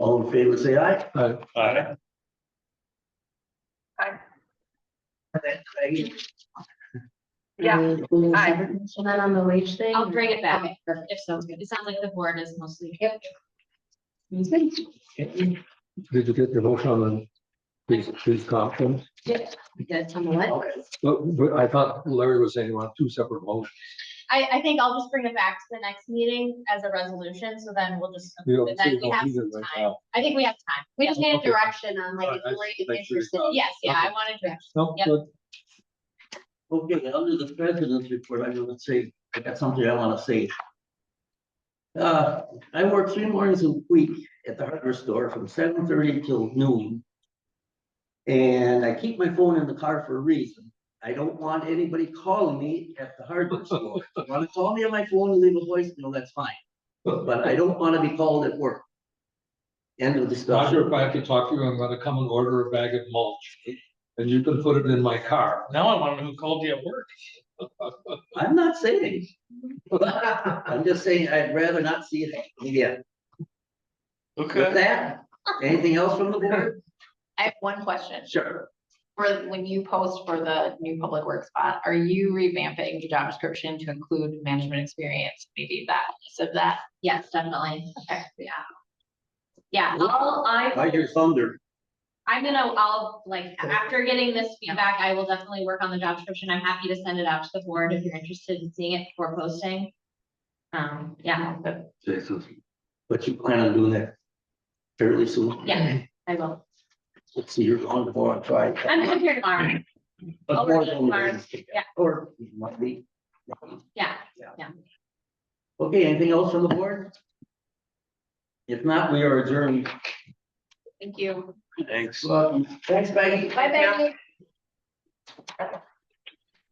All in favor, say aye. Aye. Aye. Yeah. Aye. And then on the wage thing. Um, I'll bring it back. Okay, perfect. If so, it sounds like the board is mostly. Yep. Did you get your motion on the these, these comp things? Yes, on the what? But, but I thought Larry was saying you want two separate motions. I, I think I'll just bring it back to the next meeting as a resolution, so then we'll just. You approve don't you it. Then we don't have need it some right time. now. I think we have time. We just need a Okay. direction on like, Alright, if we're make sure you interested. got it. Yes, yeah, I Okay. wanted to. No, Yep. good. Okay, under the president's report, I'm gonna say, I got something I wanna say. Uh, I work three mornings a week at the hardware store from seven thirty till noon. And I keep my phone in the car for a reason. I don't want anybody calling me at the hardware store. If you Wanna call me on my phone and leave a voicemail, that's fine, but I don't wanna be called at work. End of Roger, discussion. if I have to talk to you, I'm gonna come and order a bag of mulch and you can put it in my car. Now I want to know who called you at work. I'm not saying, I'm just saying I'd rather not see it again. With that, anything else from the board? I have one question. Sure. For when you post for the new public work spot, are you revamping the job description to include management experience? Maybe that, so that, Yes, definitely. okay, yeah. Yeah, I'll, I, I hear thunder. I'm gonna, I'll, like, after getting this feedback, I will definitely work on the job description. I'm happy to send it out to the board if you're interested in seeing it before posting. Um, yeah, Jason. But you plan on doing that fairly soon? yeah, I will. Let's see, you're on the board, try. I'm good here tomorrow. I'll work on Mars, yeah. Or you might be. Yeah, Okay, anything else from the board? If not, we are adjourned. thank you. Thanks. Welcome. Thanks, Maggie. Bye, Becky.